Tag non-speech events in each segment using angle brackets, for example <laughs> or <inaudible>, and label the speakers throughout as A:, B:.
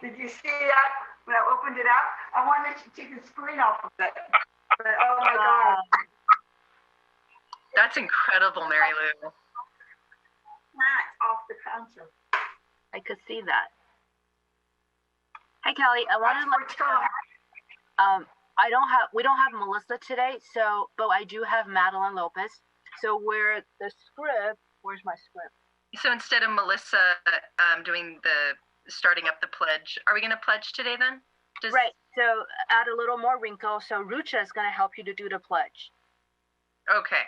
A: Did you see that when I opened it up? I wanted to take the screen off of it. But oh my
B: Um,
A: God.
C: That's incredible, Mary Lou.
A: Matt off the counter.
B: I could see that. Hey Kelly, I wanted
A: That's
B: to
A: where
B: let
A: it's
B: you know,
A: going.
B: um, I don't have, we don't have Melissa today, so, but I do have Madeline Lopez. So where the script, where's my script?
C: So instead of Melissa um, doing the starting up the pledge, are we going to pledge today then? Does-
B: Right, so add a little more wrinkle, so Rucha is gonna help you to do the pledge.
C: Okay.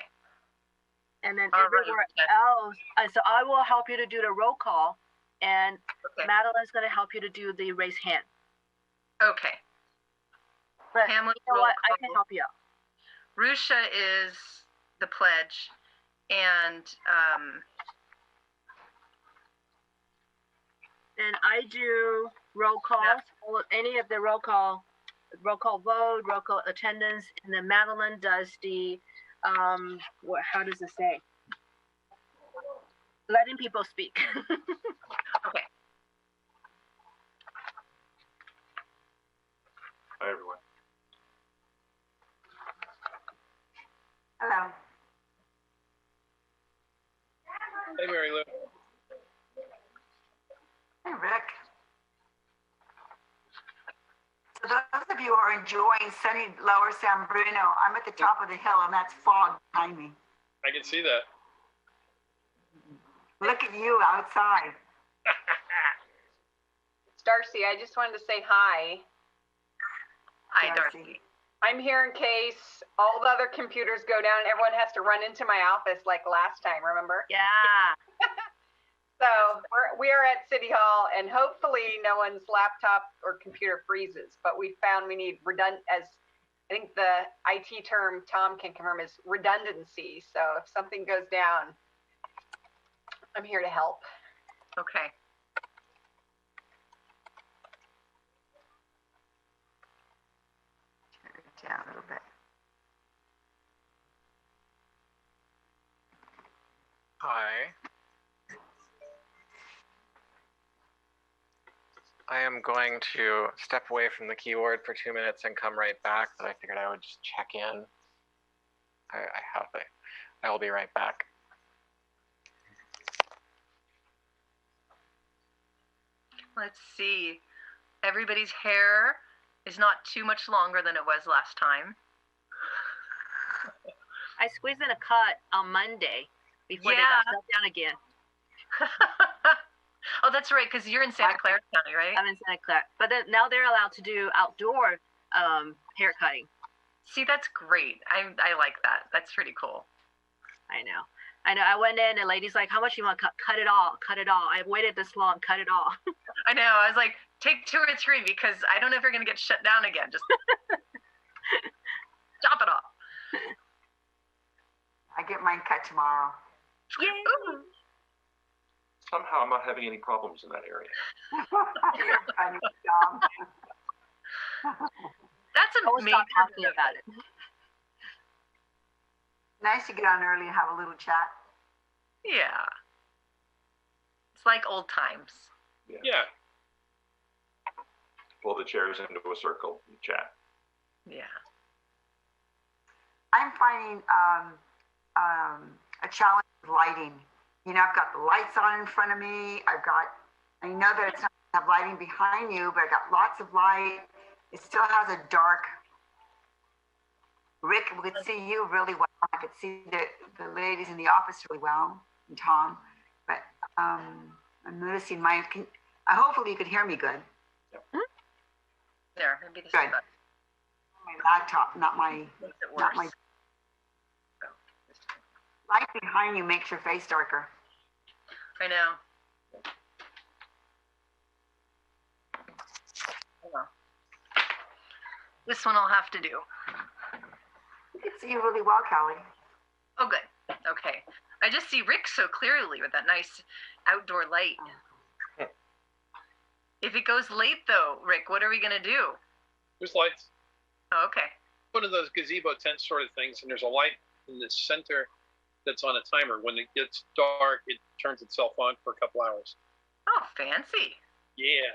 B: And then
C: All right,
B: everywhere
C: okay.
B: else, uh, so I will help you to do the roll call, and
C: Okay.
B: Madeline's gonna help you to do the raise hand.
C: Okay.
B: But you
C: Pamela,
B: know
C: roll
B: what, I can
C: call.
B: help you out.
C: Rusha is the pledge, and um,
B: And I do roll calls, all- any of the roll call, roll call vote, roll call attendance, and then Madeline does the, um, what, how does it say? Letting people speak. <laughs>
D: Hi, everyone.
A: Hello.
E: Hey, Mary Lou.
A: Hey, Rick. So those of you who are enjoying sunny lower San Bruno, I'm at the top of the hill and that's fog behind me.
E: I can see that.
A: Look at you outside.
F: It's Darcy. I just wanted to say hi.
C: hi,
A: Darcy.
C: Darcy.
F: I'm here in case all the other computers go down. and Everyone has to run into my office like last time, remember?
B: Yeah.
F: So we're, we are at City Hall and hopefully no one's laptop or computer freezes, but we found we need redundant, as I think the IT term Tom can confirm is redundancy. So if something goes down, I'm here to help.
C: Okay.
A: Turn it down a little bit.
E: Hi.
G: I am going to step away from the keyboard for two minutes and come right back, but I figured I would just check in. I, I have it. I will be right back.
C: Let's see. Everybody's hair is not too much longer than it was last time. <laughs>
B: I squeezed in a cut on Monday before they
C: Yeah.
B: got shut down again.
C: oh, that's right, because you're in Santa Clara County, right?
B: I'm in Santa Clara, but then now they're allowed to do outdoor um, hair cutting.
C: See, that's great. I I like that. That's pretty cool.
B: I know, I know. I went in and lady's like, "How much you want? Cut, cut it all, cut it all." I waited this long, cut it all.
C: I know. I was like, take two or three because I don't know if you're gonna get shut down again.
B: <laughs>
C: Just chop it off.
A: I get mine cut tomorrow. <laughs>
C: Ooh.
D: Somehow I'm not having any problems in that area.
A: You're funny, Tom.
C: That's
B: I was <laughs>
C: amazing.
B: not talking about it.
A: Nice to get on early and have a little chat.
C: Yeah. It's like old times.
E: Yeah.
D: Pull the chairs into a circle and chat.
C: Yeah.
A: I'm finding um, um, a challenge with lighting. You know, I've got the lights on in front of me. I've got, I know that it's not gonna have lighting behind you, but I got lots of light. It still has a dark. Rick, we could see you really well. I could see the, the ladies in the office really well, and Tom. But um, I'm noticing my, can, uh, hopefully you could hear me good.
C: There. Maybe this
A: Good.
C: is that
A: My laptop, not my,
C: makes it
A: not
C: worse. Oh,
A: my. Light behind you makes your face darker.
C: I know. Oh, well. This one I'll have to do.
A: I could see you really well, Callie.
C: Oh, good. Okay. I just see Rick so clearly with that nice outdoor light. If it goes late, though, Rick, what are we going to do?
E: There's lights.
C: Oh, okay.
E: One of those gazebo tent sort of things, and there's a light in the center that's on a timer. When it gets dark, it turns itself on for a couple hours.
C: Oh, fancy.
E: Yeah.